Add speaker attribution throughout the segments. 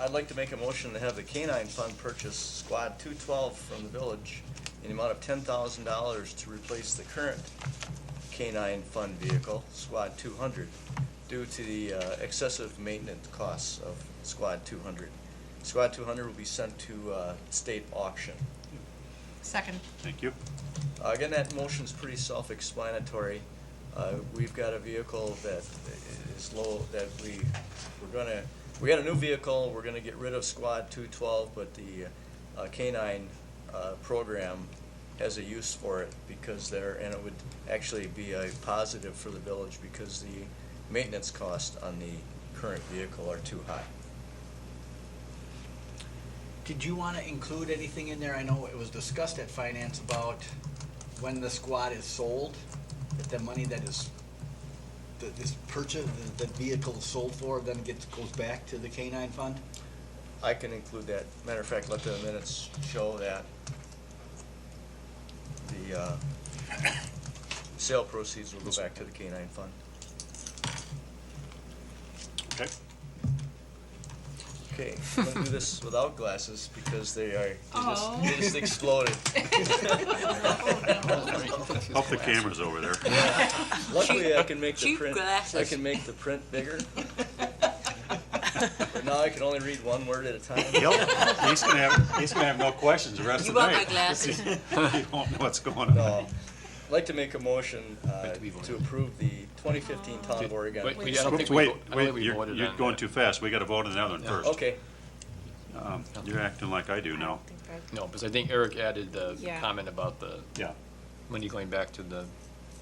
Speaker 1: I'd like to make a motion to have the K-9 Fund purchase Squad 212 from the village in the amount of $10,000 to replace the current K-9 Fund vehicle, Squad 200, due to the uh, excessive maintenance costs of Squad 200. Squad 200 will be sent to uh, state auction.
Speaker 2: Second.
Speaker 3: Thank you.
Speaker 1: Uh, Again, that motion's pretty self-explanatory. Uh, We've got a vehicle that is low, that we, we're gonna, we got a new vehicle, we're gonna get rid of Squad 212, but the uh, K-9 uh, program has a use for it because there, and it would actually be a positive for the village because the maintenance costs on the current vehicle are too high.
Speaker 4: Did you want to include anything in there? I know it was discussed at finance about when the squad is sold, that the money that is, that is purchased, that the vehicle is sold for, then gets, goes back to the K-9 fund?
Speaker 1: I can include that. Matter of fact, let the minutes show that the uh, sale proceeds will go back to the K-9 fund.
Speaker 3: Okay.
Speaker 1: Okay, I'm gonna do this without glasses because they are, they
Speaker 2: Oh.
Speaker 1: just- they just exploded.
Speaker 3: Up the cameras over there.
Speaker 1: Luckily, I can make the
Speaker 5: Cheap
Speaker 1: print, I
Speaker 5: glasses.
Speaker 1: can make the print bigger. But now I can only read one word at a time.
Speaker 3: He'll- he's gonna have, he's gonna have no questions the rest
Speaker 5: You
Speaker 3: of the
Speaker 5: want
Speaker 3: night.
Speaker 5: my glasses?
Speaker 3: You won't know what's going
Speaker 1: No.
Speaker 3: on.
Speaker 1: I'd like to make a motion uh, to approve the 2015 Town of Oregon.
Speaker 6: Wait, we- I don't think we,
Speaker 3: Wait,
Speaker 6: vo- I don't
Speaker 3: wait,
Speaker 6: think we
Speaker 3: you're,
Speaker 6: voted
Speaker 3: you're
Speaker 6: on
Speaker 3: going
Speaker 6: that.
Speaker 3: too fast. We gotta vote on the other one first.
Speaker 1: Okay,
Speaker 3: Um, You're acting like I do now.
Speaker 6: No, because I think Eric added the
Speaker 2: Yeah.
Speaker 6: comment about the
Speaker 3: Yeah.
Speaker 6: money going back to the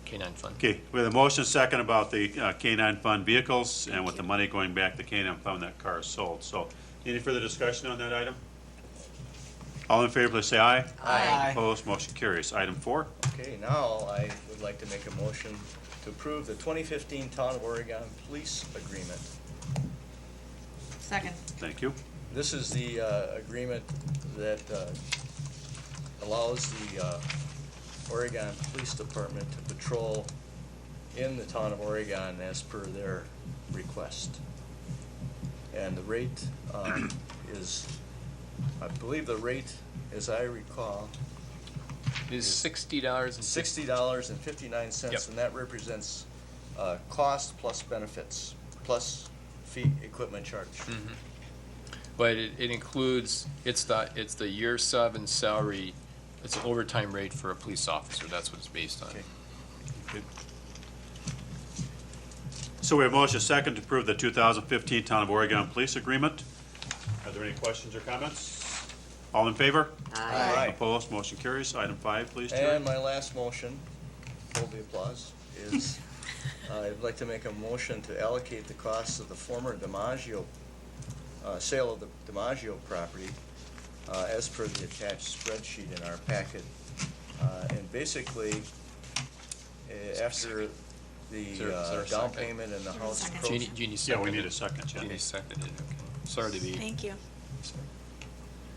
Speaker 6: K-9 fund.
Speaker 3: Okay, we have a motion second about the uh, K-9 fund vehicles and with the money going back to K-9 fund that car is sold. So, any further discussion on that item? All in favor, please say aye.
Speaker 4: Aye.
Speaker 3: Opposed, motion carries. Item four,
Speaker 1: Okay, now I would like to make a motion to approve the 2015 Town of Oregon Police Agreement.
Speaker 2: Second.
Speaker 3: thank you.
Speaker 1: This is the uh, agreement that uh, allows the uh, Oregon Police Department to patrol in the Town of Oregon as per their request. And the rate um, is, I believe the rate, as I recall,
Speaker 6: It's sixty dollars and sixty.
Speaker 1: sixty dollars and fifty-nine cents,
Speaker 6: Yep.
Speaker 1: and that represents uh, cost plus benefits, plus fee, equipment charge.
Speaker 6: Hmm. But it, it includes, it's the, it's the year seven salary, it's an overtime rate for a police officer, that's what it's based on.
Speaker 1: Okay.
Speaker 3: So we have motion second to approve the 2015 Town of Oregon Police Agreement. Are there any questions or comments? All in favor?
Speaker 1: Aye.
Speaker 3: Opposed, motion carries. Item five, please, Terry.
Speaker 1: And my last motion, hold the applause, is uh, I'd like to make a motion to allocate the costs of the former DiMaggio, uh, sale of the DiMaggio property uh, as per the attached spreadsheet in our packet. Uh, And basically, eh, after
Speaker 6: Is there-
Speaker 1: the
Speaker 6: is there
Speaker 1: uh,
Speaker 6: a
Speaker 1: down
Speaker 6: second?
Speaker 1: payment and the house
Speaker 2: second?
Speaker 1: proceeds.
Speaker 6: Jeannie, Jeannie
Speaker 3: Yeah,
Speaker 6: seconded.
Speaker 3: we need a second, Jen.
Speaker 6: Jeannie seconded, okay. Sorry to be,
Speaker 5: Thank you.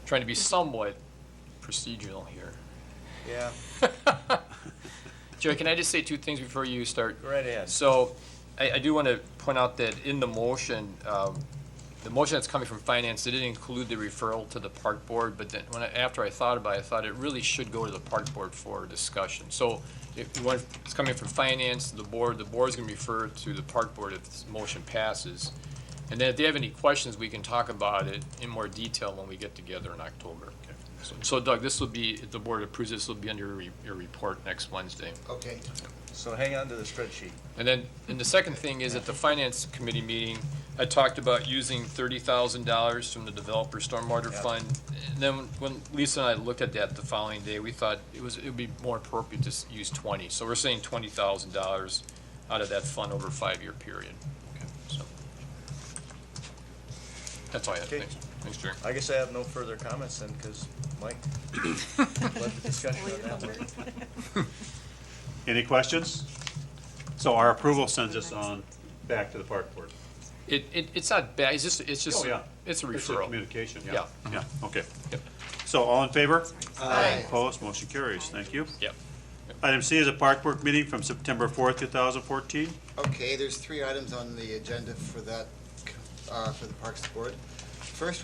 Speaker 6: trying to be somewhat procedural here.
Speaker 1: Yeah,
Speaker 6: Jerry, can I just say two things before you start
Speaker 1: go right ahead.
Speaker 6: So I, I do want to point out that in the motion, um, the motion that's coming from finance, it didn't include the referral to the park board, but then when I, after I thought about it, I thought it really should go to the park board for discussion. So if you want, it's coming from finance, the board, the board's going to refer to the park board if this motion passes. And then if they have any questions, we can talk about it in more detail when we get together in October. So- So Doug, this will be, if the board approves, this will be under your, re- your report next Wednesday.
Speaker 4: Okay.
Speaker 1: So hang on to the spreadsheet.
Speaker 6: And then, and the second thing is at the finance committee meeting, I talked about using thirty thousand dollars from the developer stormwater
Speaker 1: Yeah.
Speaker 6: fund. And then when Lisa and I looked at that the following day, we thought it was, it would be more appropriate to s- use twenty. So we're saying twenty thousand dollars out of that fund over a five-year period. So That's all I have.
Speaker 1: Okay.
Speaker 6: Thanks. Thanks, Jerry.
Speaker 1: I guess I have no further comments then, because Mike led the discussion on that one.
Speaker 3: Any questions? So our approval sends us on back to the park board.
Speaker 6: It, it, it's not bad. It's just, it's just,
Speaker 3: Oh, yeah.
Speaker 6: it's a
Speaker 3: It's a
Speaker 6: referral.
Speaker 3: communication, yeah.
Speaker 6: Yeah.
Speaker 3: Yeah, okay.
Speaker 6: Yep.
Speaker 3: So all in favor?
Speaker 4: Aye.
Speaker 3: Opposed, motion carries. Thank you.
Speaker 6: Yep.
Speaker 3: Item C is a park board meeting from September 4th, 2014.
Speaker 7: Okay, there's three items on the agenda for that, uh, for the Parks Board. First